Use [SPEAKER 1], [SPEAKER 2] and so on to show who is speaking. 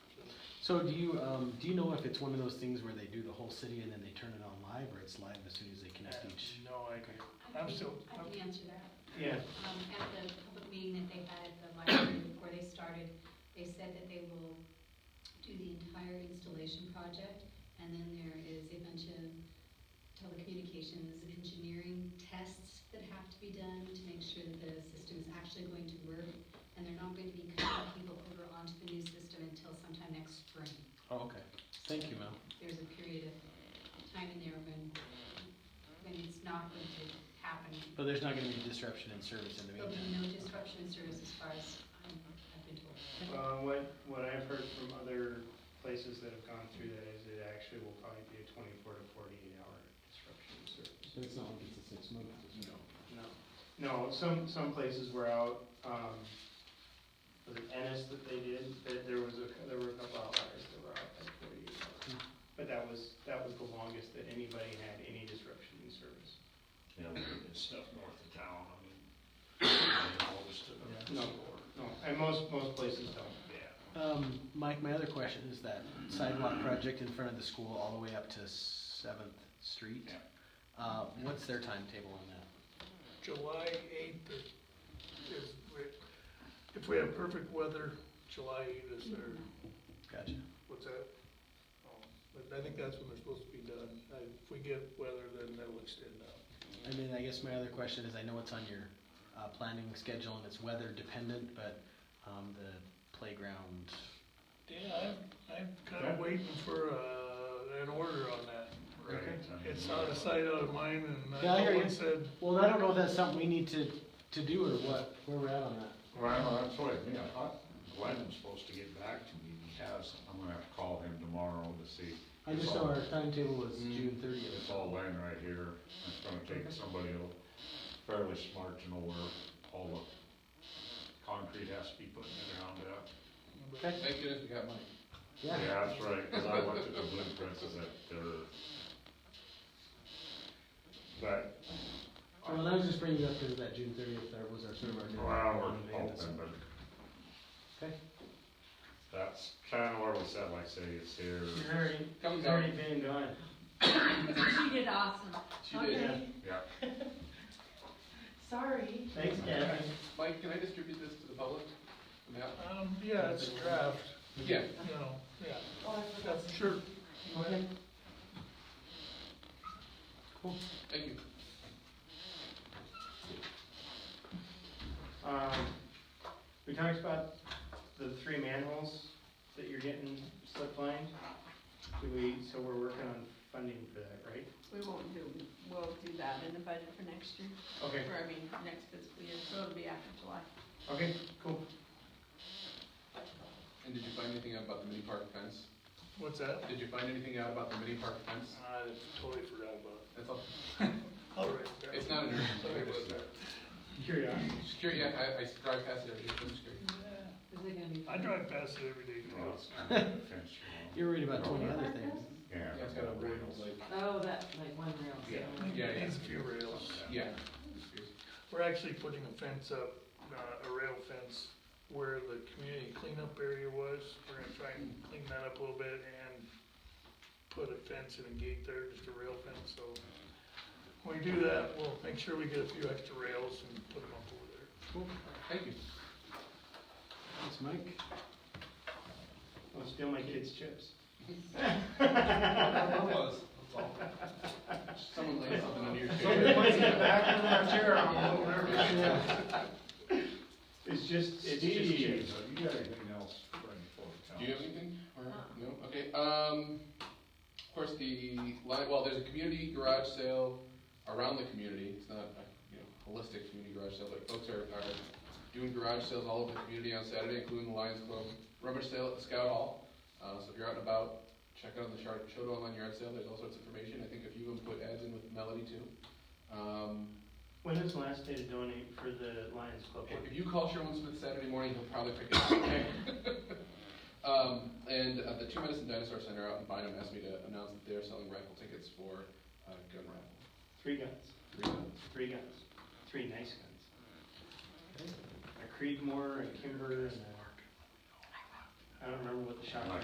[SPEAKER 1] So do you, um, do you know if it's one of those things where they do the whole city and then they turn it on live, or it's live as soon as they connect each?
[SPEAKER 2] No idea.
[SPEAKER 3] I
[SPEAKER 2] I'm
[SPEAKER 3] can-
[SPEAKER 2] still-
[SPEAKER 3] I can answer that.
[SPEAKER 2] Yeah,
[SPEAKER 3] Um, At the public meeting that they had at the library before they started, they said that they will do the entire installation project, and then there is a bunch of telecommunications engineering tests that have to be done to make sure that the system is actually going to work, and they're not going to be cutting people over onto the new system until sometime next spring.
[SPEAKER 1] Oh, okay. Thank you, Mel.
[SPEAKER 3] there's a period of time in there when, when it's not going to happen.
[SPEAKER 1] But there's not gonna be disruption in service in the
[SPEAKER 3] There'll be
[SPEAKER 1] meantime.
[SPEAKER 3] no disruption in service as far as I'm, I've been told.
[SPEAKER 4] Well, um, what, what I've heard from other places that have gone through that is it actually will probably be a twenty-four to forty-eight hour disruption in service.
[SPEAKER 1] So it's not like it's a six month.
[SPEAKER 4] No. No, no, some, some places were out, um, was it Ennis that they did, that there was a, there were a couple outliers that were out like forty-eight hours. But that was, that was the longest that anybody had any disruption in service.
[SPEAKER 5] you know, and stuff north of town, I mean, opposed to the
[SPEAKER 4] No.
[SPEAKER 5] store.
[SPEAKER 4] No, and most, most places don't.
[SPEAKER 5] Yeah.
[SPEAKER 1] Um, Mike, my other question is that sidewalk project in front of the school all the way up to Seventh Street.
[SPEAKER 5] Yeah.
[SPEAKER 1] Uh, what's their timetable on that?
[SPEAKER 2] July eighth is, we- if we have perfect weather, July eighth is their,
[SPEAKER 1] Gotcha.
[SPEAKER 2] what's that? Um, But I think that's when they're supposed to be done. Uh, If we get weather, then that'll extend out.
[SPEAKER 1] And then I guess my other question is, I know it's on your, uh, planning schedule and it's weather dependent, but, um, the playground,
[SPEAKER 2] Yeah, I'm, I'm kinda waiting for, uh, an order on that.
[SPEAKER 5] Right.
[SPEAKER 2] It's out of sight, out of mind, and
[SPEAKER 1] Yeah, I
[SPEAKER 2] I
[SPEAKER 1] hear
[SPEAKER 2] know
[SPEAKER 1] you.
[SPEAKER 2] one said,
[SPEAKER 1] well, I don't know if that's something we need to, to do or what, where we're at on that.
[SPEAKER 5] Well, that's what, I mean. I thought Glenn's supposed to get back to me, he has, I'm gonna have to call him tomorrow to see.
[SPEAKER 1] I just know our timetable was
[SPEAKER 6] Mm-hmm.
[SPEAKER 4] Mm.
[SPEAKER 1] June thirtieth.
[SPEAKER 5] It's all laying right here, it's gonna take somebody who- fairly smart to know where all the concrete has to be put in the ground at.
[SPEAKER 1] Okay,
[SPEAKER 6] Thank goodness we got money.
[SPEAKER 1] yeah,
[SPEAKER 5] Yeah, that's right, because I looked at the blueprints and that they're. But.
[SPEAKER 1] well, I was just bringing it up because that June thirtieth, that was our sort of our.
[SPEAKER 5] Well, we're hoping, but
[SPEAKER 1] Okay,
[SPEAKER 5] that's kind of where we said, like, say it's here.
[SPEAKER 6] Comes
[SPEAKER 4] It's
[SPEAKER 6] out.
[SPEAKER 4] already been done.
[SPEAKER 3] She did awesome.
[SPEAKER 6] She did.
[SPEAKER 5] Yeah,
[SPEAKER 7] Sorry.
[SPEAKER 4] Thanks, Kevin.
[SPEAKER 6] Mike, can I distribute this to the public? Yeah.
[SPEAKER 2] um, yeah, it's a draft,
[SPEAKER 6] Yeah.
[SPEAKER 2] you know, yeah,
[SPEAKER 7] Oh, I forgot.
[SPEAKER 2] that's sure.
[SPEAKER 1] okay.
[SPEAKER 6] Thank you.
[SPEAKER 4] Um, we talked about the three manholes that you're getting slip lined. Do we, so we're working on funding for that, right?
[SPEAKER 7] We won't do, we'll do that in the budget for next year,
[SPEAKER 4] Okay,
[SPEAKER 7] or I mean, next fiscal year, so it'll be after July.
[SPEAKER 4] okay, cool.
[SPEAKER 6] And did you find anything out about the mini park fence?
[SPEAKER 2] What's that?
[SPEAKER 6] Did you find anything out about the mini park fence?
[SPEAKER 2] I totally forgot about
[SPEAKER 6] That's all.
[SPEAKER 2] it. All right. yeah.
[SPEAKER 6] It's not an urgent.
[SPEAKER 2] Sorry
[SPEAKER 6] matter,
[SPEAKER 2] about
[SPEAKER 6] so-
[SPEAKER 2] that.
[SPEAKER 4] Curiosity.
[SPEAKER 6] Just curious, I, I drive past it every day, I'm just curious.
[SPEAKER 3] Is it gonna be?
[SPEAKER 2] I drive past it every day.
[SPEAKER 5] well, it's kind of a fence, you know.
[SPEAKER 1] You're worried about twenty other things.
[SPEAKER 5] Yeah.
[SPEAKER 6] Yeah, it's got a wood, like,
[SPEAKER 7] Oh, that, like one rail.
[SPEAKER 5] Yeah.
[SPEAKER 6] Yeah,
[SPEAKER 2] It
[SPEAKER 6] yeah.
[SPEAKER 2] Needs a few rails.
[SPEAKER 6] yeah. Just curious.
[SPEAKER 2] We're actually putting a fence up, uh, a rail fence where the community cleanup area was. We're gonna try and clean that up a little bit and put a fence and a gate there, just a rail fence, so. When we do that, we'll make sure we get a few extra rails and put them up over there.
[SPEAKER 6] Thank you.
[SPEAKER 1] Thanks, Mike.
[SPEAKER 4] Don't steal my kids' chips.
[SPEAKER 6] That was, that's all. Someone laid something under your
[SPEAKER 4] Somebody
[SPEAKER 6] chair.
[SPEAKER 4] puts it back in my chair, I'm a little nervous. It's just, it's just
[SPEAKER 5] Steve,
[SPEAKER 4] chips.
[SPEAKER 5] have you got anything else to bring forward? to
[SPEAKER 6] Do you have anything? Or, no? Okay, um, of course, the, li- well, there's a community garage sale around the community. It's not, a, you know, holistic community garage sale, but folks are, are doing garage sales all over the community on Saturday, including the Lions Club rummage sale at the Scout Hall. Uh, so if you're out and about, check out on the chart, show online yard sale. There's all sorts of information. I think a few of them put ads in with Melody too. Um,
[SPEAKER 4] When is the last day to donate for the Lions Club? one?
[SPEAKER 6] If you call Sherwin Smith Saturday morning, he'll probably pick it up, okay? Um, and uh, the Two Medicine Dinosaur Center out in Bynum asked me to announce that they're selling rifle tickets for, uh, gun raffle.
[SPEAKER 4] Three guns,
[SPEAKER 6] Three guns.
[SPEAKER 4] three guns, three nice guns. A Creedmoor, a Kimber, and a, I don't remember what the shotgun